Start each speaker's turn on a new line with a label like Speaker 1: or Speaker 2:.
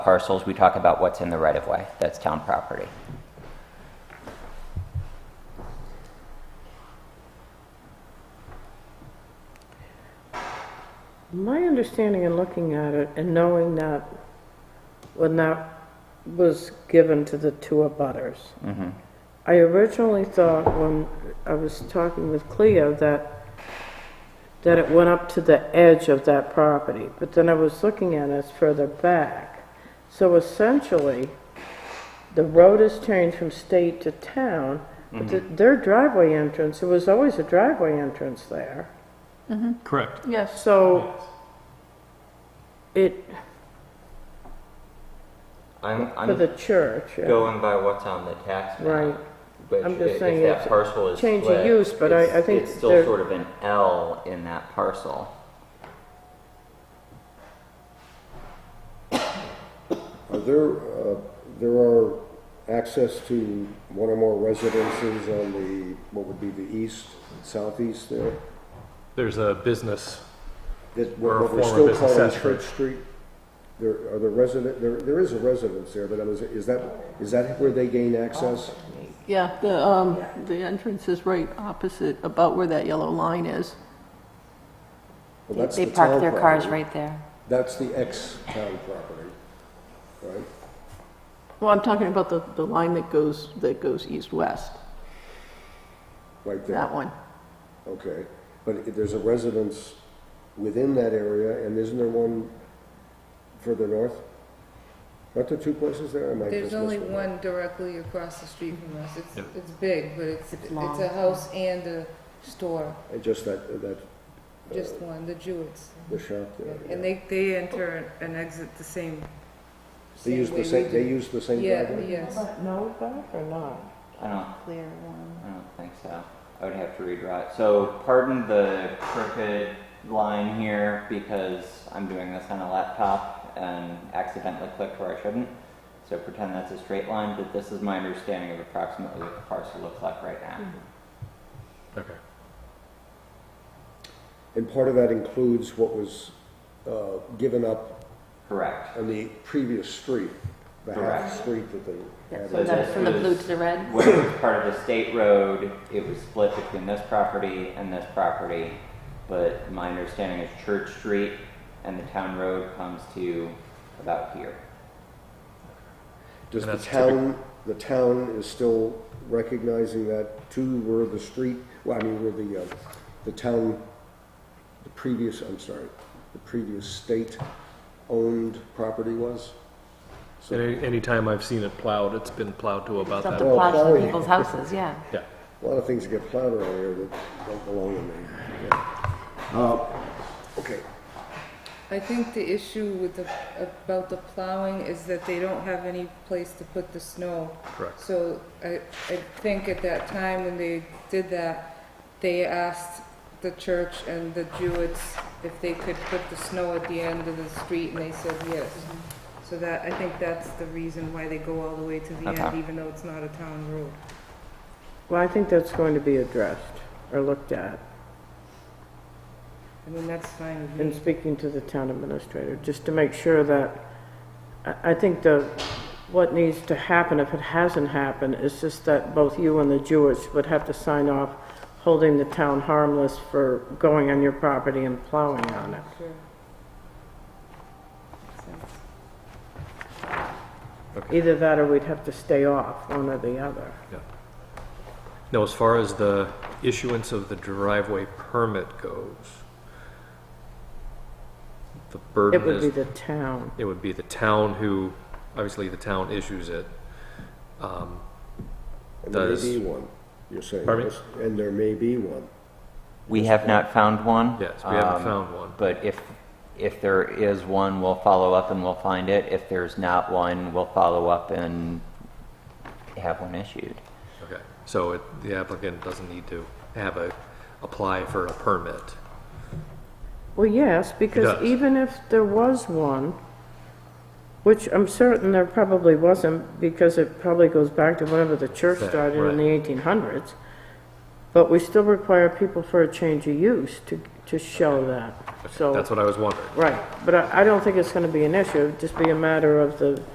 Speaker 1: parcels, we talk about what's in the right of way. That's town property.
Speaker 2: My understanding in looking at it and knowing that when that was given to the two abutters, I originally thought when I was talking with Cleo that, that it went up to the edge of that property, but then I was looking at it, it's further back. So essentially, the road has changed from state to town, but the- their driveway entrance, there was always a driveway entrance there.
Speaker 3: Correct.
Speaker 2: Yes. So it,
Speaker 1: I'm,
Speaker 2: for the
Speaker 1: I'm
Speaker 2: church, yeah.
Speaker 1: going by what's on the tax map.
Speaker 2: Right.
Speaker 1: Which
Speaker 2: I'm just
Speaker 1: if
Speaker 2: saying
Speaker 1: that
Speaker 2: it's a
Speaker 1: parcel is
Speaker 2: change of
Speaker 1: split,
Speaker 2: use, but I-
Speaker 1: it's-
Speaker 2: I think
Speaker 1: It's still
Speaker 2: there-
Speaker 1: sort of an L in that parcel.
Speaker 4: Are there, uh, there are access to one or more residences on the, what would be the east, southeast there?
Speaker 3: There's a business.
Speaker 4: That,
Speaker 3: Or a
Speaker 4: what we're
Speaker 3: former
Speaker 4: still
Speaker 3: business
Speaker 4: calling
Speaker 3: center.
Speaker 4: Church Street? There, are there resident, there, there is a residence there, but I was, is that, is that where they gain access?
Speaker 5: Yeah, the, um, the entrance is right opposite, about where that yellow line is.
Speaker 4: Well,
Speaker 6: They-
Speaker 4: that's
Speaker 6: They
Speaker 4: the
Speaker 6: park
Speaker 4: town
Speaker 6: their cars
Speaker 4: property.
Speaker 6: right there.
Speaker 4: That's the ex-town property, right?
Speaker 5: Well, I'm talking about the, the line that goes, that goes east-west,
Speaker 4: Right there.
Speaker 5: that one.
Speaker 4: Okay, but i- there's a residence within that area, and isn't there one further north? Aren't there two places there? I might
Speaker 7: There's
Speaker 4: just
Speaker 7: only
Speaker 4: miss
Speaker 7: one directly across the street from us. It's,
Speaker 3: Yep.
Speaker 7: it's big, but it's, it's
Speaker 6: long.
Speaker 7: a house and a store,
Speaker 4: Uh, Just that, that,
Speaker 7: just one, the Jewitts.
Speaker 4: the shop there.
Speaker 7: And
Speaker 4: yeah.
Speaker 7: they, they enter and exit the same.
Speaker 4: They use
Speaker 7: way
Speaker 4: the
Speaker 7: we
Speaker 4: same, they
Speaker 7: do.
Speaker 4: use the same
Speaker 7: Yeah,
Speaker 4: driveway?
Speaker 7: yes.
Speaker 2: No back or not?
Speaker 1: I don't,
Speaker 6: Clear one.
Speaker 1: I don't think so. I would have to redraw it. So pardon the crooked line here because I'm doing this on a laptop and accidentally clicked where I shouldn't. So pretend that's a straight line, but this is my understanding of approximately what the parcel looks like right now.
Speaker 6: Mm-hmm.
Speaker 3: Okay.
Speaker 4: And part of that includes what was uh, given up
Speaker 1: Correct.
Speaker 4: on the previous street, the
Speaker 1: Correct.
Speaker 4: half street that they
Speaker 6: Yeah,
Speaker 4: had.
Speaker 6: From the,
Speaker 1: this
Speaker 6: from the blue
Speaker 1: was-
Speaker 6: to the red?
Speaker 1: When it was part of a state road, it was split between this property and this property. But my understanding is Church Street and the town road comes to about here.
Speaker 4: Does
Speaker 3: And
Speaker 4: the
Speaker 3: that's typical-
Speaker 4: town, the town is still recognizing that too, were the street, well, I mean, were the, uh, the town, the previous, I'm sorry, the previous state-owned property was?
Speaker 3: So any, anytime I've seen it plowed, it's been plowed to about
Speaker 6: Dump
Speaker 3: that.
Speaker 6: the
Speaker 4: Well,
Speaker 6: plots
Speaker 4: plowing.
Speaker 6: in people's houses, yeah.
Speaker 3: Yeah.
Speaker 4: A lot of things get plowed around here that don't belong in there. yeah. Uh, Okay,
Speaker 7: I think the issue with the, about the plowing is that they don't have any place to put the snow.
Speaker 3: Correct.
Speaker 7: So I, I think at that time when they did that, they asked the church and the Jewitts if they could put the snow at the end of the street, and they said yes. So that, I think that's the reason why they go all the way to the
Speaker 1: Okay.
Speaker 7: end, even though it's not a town road.
Speaker 2: Well, I think that's going to be addressed or looked at.
Speaker 7: I mean, that's fine with me.
Speaker 2: And speaking to the town administrator, just to make sure that, I, I think the, what needs to happen, if it hasn't happened, is just that both you and the Jewish would have to sign off holding the town harmless for going on your property and plowing on it.
Speaker 7: Sure.
Speaker 2: Either that or we'd have to stay off, one or the other.
Speaker 3: Yeah. Now, as far as the issuance of the driveway permit goes, the
Speaker 2: It
Speaker 3: burden
Speaker 2: would
Speaker 3: is
Speaker 2: be the town.
Speaker 3: it would be the town who, obviously, the town issues it. Um,
Speaker 4: and there
Speaker 3: Does-
Speaker 4: may be one, you're saying.
Speaker 3: Pardon me?
Speaker 4: yes? And there may be one.
Speaker 1: We have not found one.
Speaker 3: yes, we haven't
Speaker 1: Um,
Speaker 3: found one.
Speaker 1: But if, if there is one, we'll follow up and we'll find it. If there's not one, we'll follow up and have one issued.
Speaker 3: Okay. So it, the applicant doesn't need to have a apply for a permit.
Speaker 2: Well, yes, because
Speaker 3: does.
Speaker 2: even if there was one, which I'm certain there probably wasn't, because it probably goes back to whenever the church
Speaker 3: Fair,
Speaker 2: started in
Speaker 3: right.
Speaker 2: the 1800s, but we still require people for a change of use to, to show that, so.
Speaker 3: That's what I was wondering.
Speaker 2: Right, but I, I don't think it's gonna be an issue, it'd just be a matter of the